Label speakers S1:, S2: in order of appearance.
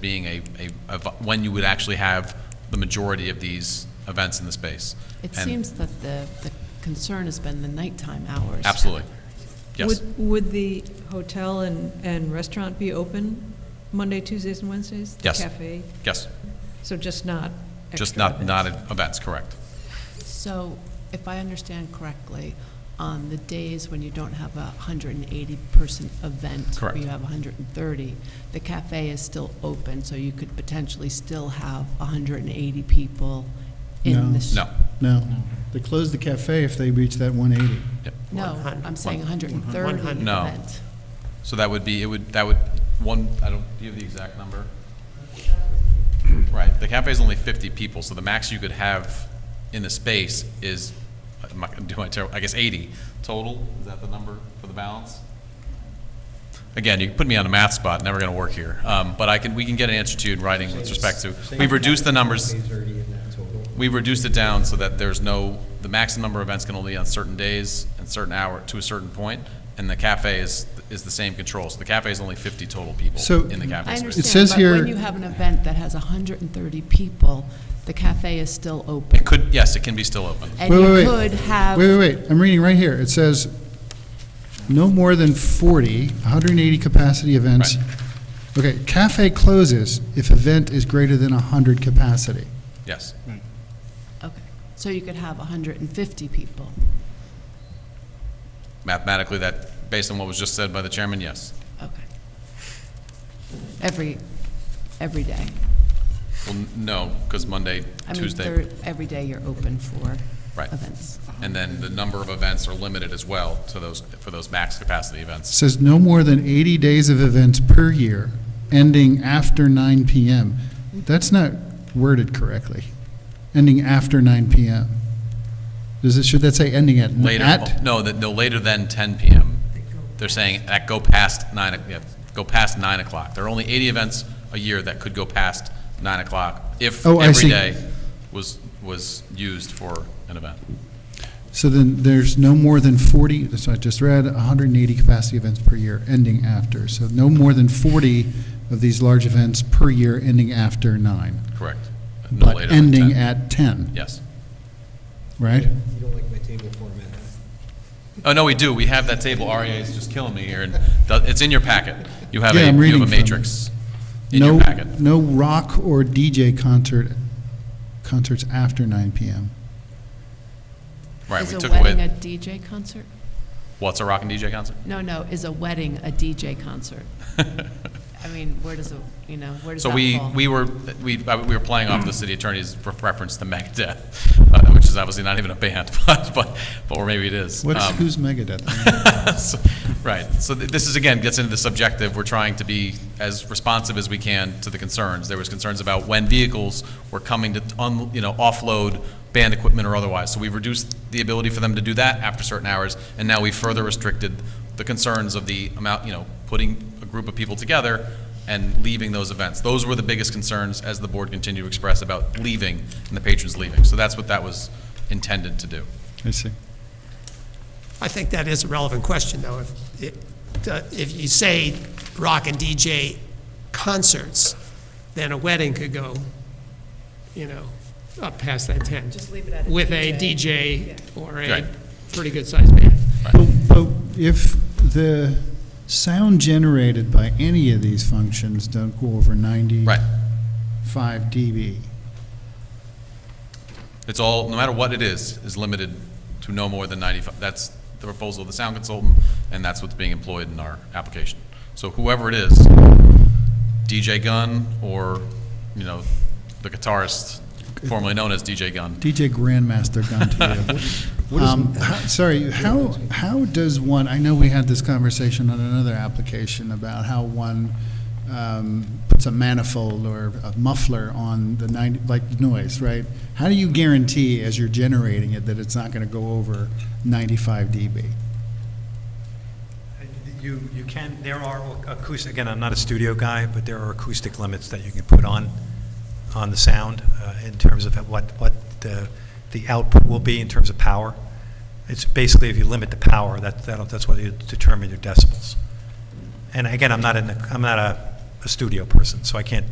S1: being a, a, a v- when you would actually have the majority of these events in the space. And-
S2: It seems that the, the concern has been the nighttime hours.
S1: Absolutely. Yes.
S3: Would, would the hotel and, and restaurant be open Monday, Tuesdays, and Wednesdays? The
S1: Yes.
S3: Cafe,
S1: Yes.
S3: so just not
S1: Just not,
S3: extra
S1: not
S3: events.
S1: at events, correct.
S2: So if I understand correctly, on the days when you don't have a 180-person event.
S1: Correct.
S2: Or you have 130, the cafe is still open, so you could potentially still have 180 people in
S4: No.
S2: this.
S1: No.
S4: No, they close the cafe if they reach that 180.
S1: Yep.
S2: No, I'm saying 130 event.
S1: No. So that would be, it would, that would, one, I don't, do you have the exact number? Right, the cafe is only 50 people, so the max you could have in the space is, I'm not gonna do my, ter- I guess 80 total, is that the number for the balance? Again, you put me on a math spot, never going to work here, Um, but I can, we can get an answer to you in writing with respect to, we've reduced the numbers.
S5: Days already in that total.
S1: We've reduced it down so that there's no, the maximum number of events can only be on certain days and certain hour, to a certain point, and the cafe is, is the same control. So the cafe is only 50 total people
S4: So-
S1: in the
S2: I
S1: cafe space.
S2: understand,
S4: says
S2: but
S4: here-
S2: when you have an event that has 130 people, the cafe is still open.
S1: It could, yes, it can be still open.
S2: And
S4: Wait,
S2: you
S4: wait,
S2: could
S4: wait.
S2: have.
S4: Wait, wait, wait, I'm reading right here. It says, no more than 40, 180 capacity events.
S1: Right.
S4: Okay, cafe closes if event is greater than 100 capacity.
S1: Yes,
S2: Okay, so you could have 150 people.
S1: mathematically, that, based on what was just said by the chairman, yes.
S2: Okay. Every, every day.
S1: Well, n- no, because Monday,
S2: I mean,
S1: Tuesday,
S2: they're- every day you're open for
S1: Right.
S2: events.
S1: and then the number of events are limited as well to those, for those max capacity events.
S4: It says no more than 80 days of events per year, ending after 9 PM. That's not worded correctly, ending after 9 PM. Does it, should that say ending at?
S1: Later,
S4: at?
S1: no, that, no, later than 10 PM. They're saying that go past nine, o- yeah, go past nine o'clock. There are only 80 events a year that could go past nine o'clock if
S4: Oh, I
S1: every
S4: see.
S1: day was, was used for an event.
S4: So then there's no more than 40, that's what I just read, 180 capacity events per year, ending after. So no more than 40 of these large events per year, ending after 9.
S1: Correct. No later
S4: But
S1: than
S4: ending
S1: 10.
S4: at 10,
S1: Yes.
S4: right?
S5: You don't like my table format, huh?
S1: Oh, no, we do. We have that table. REA is just killing me here, and th- it's in your packet. You have
S4: Yeah,
S1: a,
S4: I'm
S1: you
S4: reading
S1: have a
S4: from it.
S1: matrix in
S4: No-
S1: your packet.
S4: No rock or DJ concert, concerts after 9 PM.
S1: Right, we
S2: Is a
S1: took
S2: wedding a
S1: away,
S2: DJ concert?
S1: what's a rock and DJ concert?
S2: No, no, is a wedding a DJ concert? I mean, where does it, you know, where does that
S1: So
S2: fall?
S1: we, we were, we, uh, we were playing off the city attorney's re- reference to Megadeth, uh, which is obviously not even a band, but, but, but or maybe it is.
S4: What's,
S1: Um,
S4: who's Megadeth?
S1: so- Right, so th- this is, again, gets into the subjective, we're trying to be as responsive as we can to the concerns. There was concerns about when vehicles were coming to, un- you know, offload band equipment or otherwise. So we've reduced the ability for them to do that after certain hours, and now we've further restricted the concerns of the amount, you know, putting a group of people together and leaving those events. Those were the biggest concerns, as the board continued to express, about leaving and the patrons leaving. So that's what that was intended to do.
S4: I see.
S6: I think that is a relevant question, though. If, it- uh, if you say rock and DJ concerts, then a wedding could go, you know, up past that tent. Just leave it at With a DJ or a
S1: Right.
S6: pretty good-sized band.
S4: But but if the sound generated by any of these functions don't go over 90.
S1: Right.
S4: 5 dB.
S1: It's all, no matter what it is, is limited to no more than 95. That's the proposal of the sound consultant, and that's what's being employed in our application. So whoever it is, DJ Gunn or, you know, the guitarist formerly known as DJ Gunn.
S4: DJ Grandmaster gun to you. Um, how- Sorry, how, how does one, I know we had this conversation on another application about how one um, puts a manifold or a muffler on the 90, like noise, right? How do you guarantee as you're generating it that it's not going to go over 95 dB?
S7: You, you can, there are acoustic, again, I'm not a studio guy, but there are acoustic limits that you can put on, on the sound uh, in terms of what, what the, the output will be in terms of power. It's basically if you limit the power, that, that'll, that's what you determine your decibels. And again, I'm not in, the- I'm not a, a studio person, so I can't